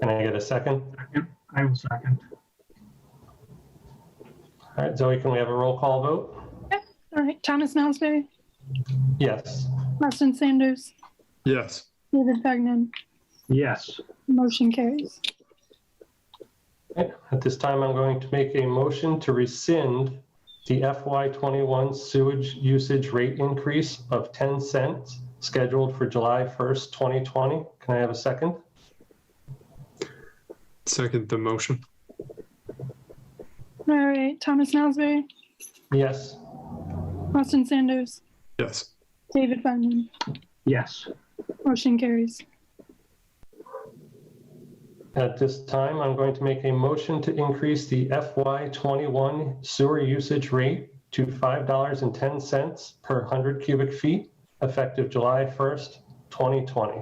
Can I get a second? Second, I will second. All right, Zoe, can we have a roll call vote? All right, Thomas Nosberry, Yes. Austin Sanders, Yes. David Fagnan, Yes, motion carries. Okay, At this time, I'm going to make a motion to rescind the FY21 sewage usage rate increase of 10 cents scheduled for July 1st, 2020. Can I have a second? Second the motion. All right, Thomas Nosberry, Yes. Austin Sanders, Yes. David Fagnan, yes, motion carries. At this time, I'm going to make a motion to increase the FY21 sewer usage rate to $5.10 per 100 cubic feet, effective July 1st, 2020.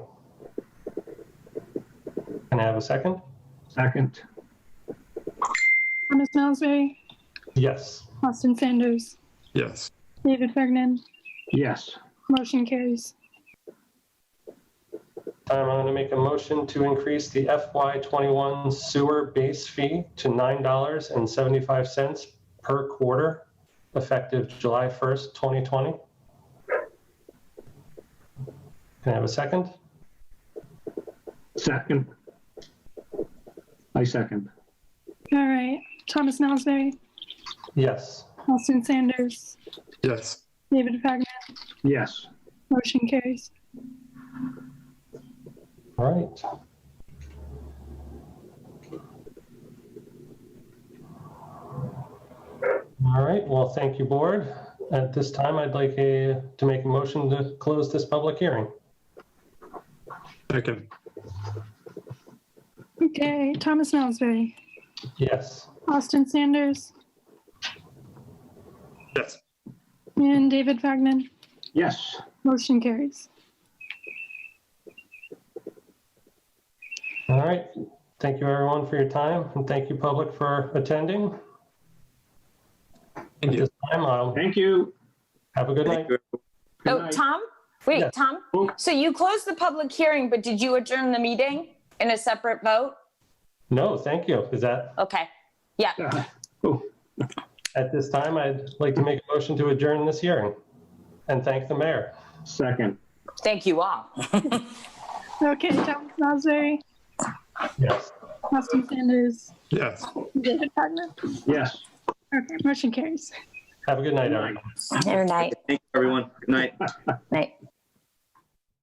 Can I have a second? second, Thomas Nosberry, Yes. Austin Sanders, Yes. David Fagnan, yes, motion carries. Time, I'm going to make a motion to increase the FY21 sewer base fee to $9.75 per quarter, effective July 1st, 2020. Can I have a second? second. I second, All right, Thomas Nosberry, Yes. Austin Sanders, Yes. David Fagnan, yes, motion carries. All right. All right, well, thank you, board. At this time, I'd like a- to make a motion to close this public hearing. Second. Okay, Thomas Nosberry, Yes. Austin Sanders, Yes. and David Fagnan, yes, motion carries. All right. Thank you, everyone, for your time, and thank you, public, for attending. At Thank you. this time, I'll thank you. have a good night. Good Oh, night. Tom? Wait, Yes. Tom? Oh. So you closed the public hearing, but did you adjourn the meeting in a separate vote? No, thank you. Is that, Okay. Yeah. Oh, at this time, I'd like to make a motion to adjourn this hearing and thank the mayor. second, Thank you all. Okay, Thomas Nosberry, Yes. Austin Sanders, Yes. David Fagnan. yes. Okay, motion carries. Have a good night, Good everyone. night. Good night. Thank you, everyone. Good night. Night.